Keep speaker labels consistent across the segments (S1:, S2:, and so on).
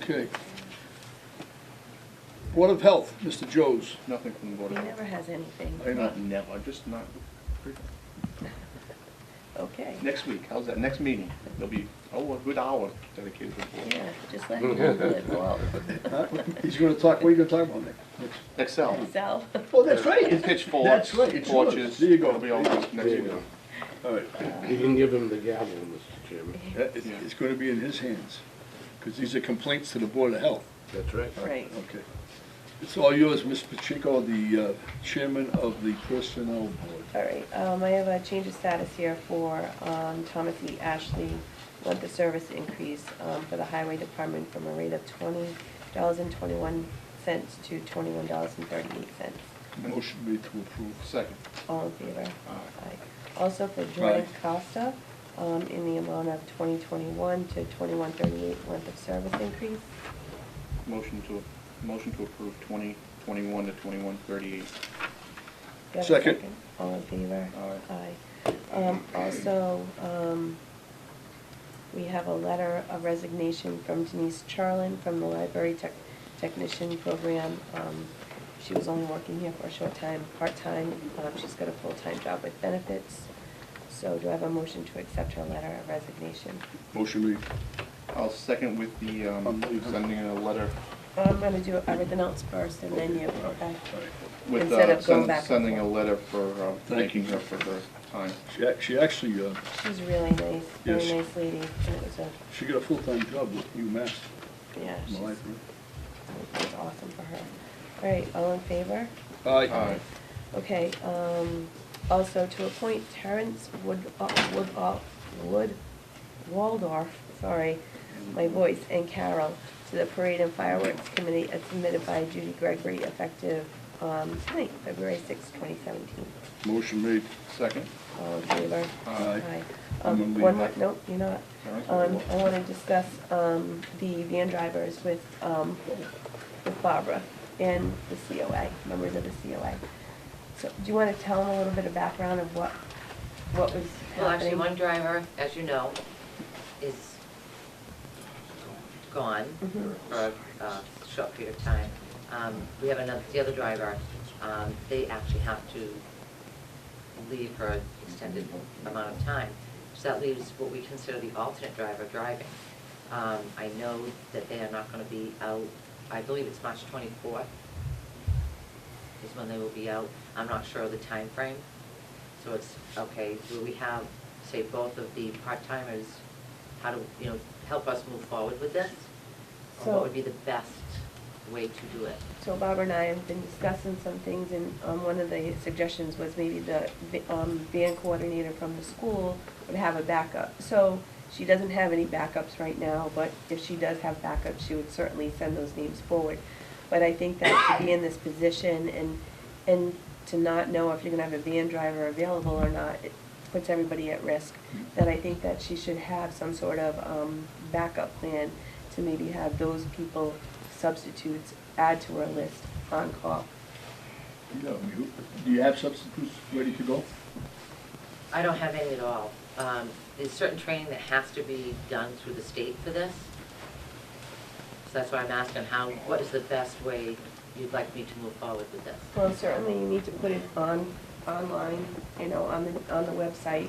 S1: Okay. Board of Health, Mr. Joes.
S2: Nothing from the board
S3: He
S2: of health.
S3: never has anything.
S2: I not never, just not,
S3: Okay.
S2: next week, how's that, next meeting, there'll be, oh, a good hour dedicated to the board.
S3: Yeah, just let him live, well,
S1: Huh? He's gonna talk, what are you gonna talk about next? next?
S2: Excel,
S3: himself.
S1: Oh, that's
S2: and
S1: right.
S2: pitchforks,
S1: That's right, it's yours.
S2: torches,
S1: There you go.
S2: it'll be all next next
S4: There you
S2: week.
S4: go.
S1: All right.
S4: You can give him the gavel, Mr. Chairman.
S1: That is- It's gonna be in his hands, because these are complaints to the Board of Health.
S4: That's right.
S3: Right.
S1: Okay. It's all yours, Ms. Pacheco, the uh, chairman of the Personnel Board.
S3: All right, um, I have a change of status here for, um, Thomas E. Ashley, want the service increase, um, for the highway department from a rate of twenty dollars and twenty-one cents to twenty-one dollars and thirty-eight cents.
S1: Motion made to approve.
S2: Second,
S3: All in favor?
S2: Aye.
S3: Aye. Also for Jordan
S1: Aye.
S3: Costa, um, in the amount of twenty twenty-one to twenty-one thirty-eight month of service increase.
S2: motion to, motion to approve twenty, twenty-one to twenty-one thirty-eight.
S3: Do you have a
S1: Second.
S3: All in favor?
S2: Aye.
S3: Aye. Um, also, um, we have a letter of resignation from Denise Charlin from the library tech, technician program. Um, she was only working here for a short time, part-time, um, she's got a full-time job with benefits. So do I have a motion to accept her letter of resignation?
S1: Motion made.
S2: I'll second with the, um,
S1: Unbelievable.
S2: sending a letter
S3: I'm gonna do everything else first and then you,
S1: All right,
S3: okay?
S1: all right.
S2: with,
S3: Instead
S2: uh,
S3: of going
S2: send-
S3: back and
S2: sending a
S3: forth.
S2: letter for, uh,
S1: Thank you.
S2: thanking her for her time.
S1: She ac- She actually, uh,
S3: She's really nice, very
S1: Yes.
S3: nice lady, and it was a,
S1: she got a full-time job with UMass.
S3: yeah,
S1: in the
S3: she's,
S1: library.
S3: That's awesome for her. All right, all in favor?
S2: Aye.
S3: Okay, um, also to appoint Terrence Wood, uh, Wood, uh, Wood, Waldorf, sorry, my voice, and Carol to the Parade and Fireworks Committee as submitted by Judy Gregory effective, um, tonight, February sixth, twenty seventeen.
S1: Motion made.
S2: Second, Uh,
S3: All in favor?
S1: Aye. I'm gonna
S3: Um,
S1: leave
S3: one, more-
S1: that.
S3: nope, you're not.
S2: All right.
S3: Um, I wanna discuss, um, the van drivers with, um, with Barbara and the COA, members of the COA. So, do you wanna tell them a little bit of background of what, what was happening?
S5: Well, actually, one driver, as you know, is gone
S3: Mhm.
S5: for a uh, short period of time. Um, We have another, the other driver, um, they actually have to leave for an extended amount of time. So that leaves what we consider the alternate driver driving. Um, I know that they are not gonna be out, I believe it's March twenty-fourth is when they will be out. I'm not sure of the time frame. So it's, okay, do we have, say, both of the part-timers, how to, you know, help us move forward with this? Or
S3: So-
S5: what would be the best way to do it?
S3: So Barbara and I have been discussing some things, and um, one of the suggestions was maybe the vi- um, van coordinator from the school would have a backup. So she doesn't have any backups right now, but if she does have backups, she would certainly send those names forward. But I think that to be in this position and, and to not know if you're gonna have a van driver available or not, it puts everybody at risk. That I think that she should have some sort of um, backup plan to maybe have those people substitutes add to our list on call.
S1: Yeah, I mean, who- Do you have substitutes ready to go?
S5: I don't have any at all. Um, There's certain training that has to be done through the state for this. So that's why I'm asking how, what is the best way you'd like me to move forward with this?
S3: Well, certainly you need to put it on, online, you know, on the, on the website.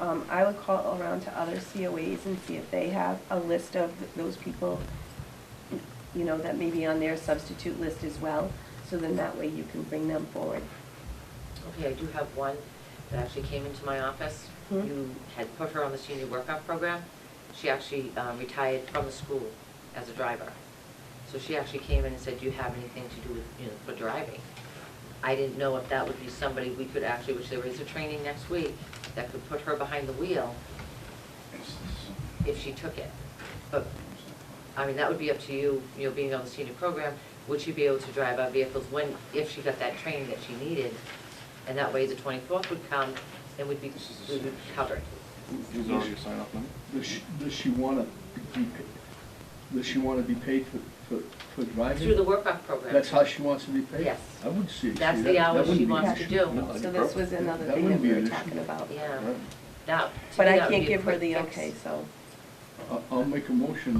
S3: Um, I would call around to other COAs and see if they have a list of th- those people, you know, that may be on their substitute list as well, so then that way you can bring them forward.
S5: Okay, I do have one that actually came into my office.
S3: Hmm.
S5: You had put her on the senior workout program. She actually um, retired from the school as a driver. So she actually came in and said, do you have anything to do with, you know, for driving? I didn't know if that would be somebody we could actually, which there is a training next week, that could put her behind the wheel if she took it. But, I mean, that would be up to you, you know, being on the senior program, would she be able to drive our vehicles when, if she got that training that she needed? And that way, the twenty-fourth would come, and we'd be, we would be covered.
S2: Is there already a sign off number?
S1: Does she, does she wanna be, does she wanna be paid for, for, for driving?
S5: Through the workout program.
S1: That's how she wants to be paid?
S5: Yes.
S1: I would see. see,
S5: That's the
S1: that- that
S5: hours
S1: wouldn't be
S5: she
S1: an
S5: wants to
S1: issue.
S5: do.
S2: No, that'd be
S3: So this
S2: perfect.
S3: was another
S1: That
S3: thing
S1: wouldn't
S3: that we
S1: be
S3: were
S1: an
S3: talking
S1: issue.
S3: about.
S5: Yeah,
S2: Right.
S5: that, to
S3: But
S5: me,
S3: I
S5: that would
S3: can't
S5: be a
S3: give her
S5: quick
S3: the
S5: fix.
S3: okay, so.
S1: I- I'll make a motion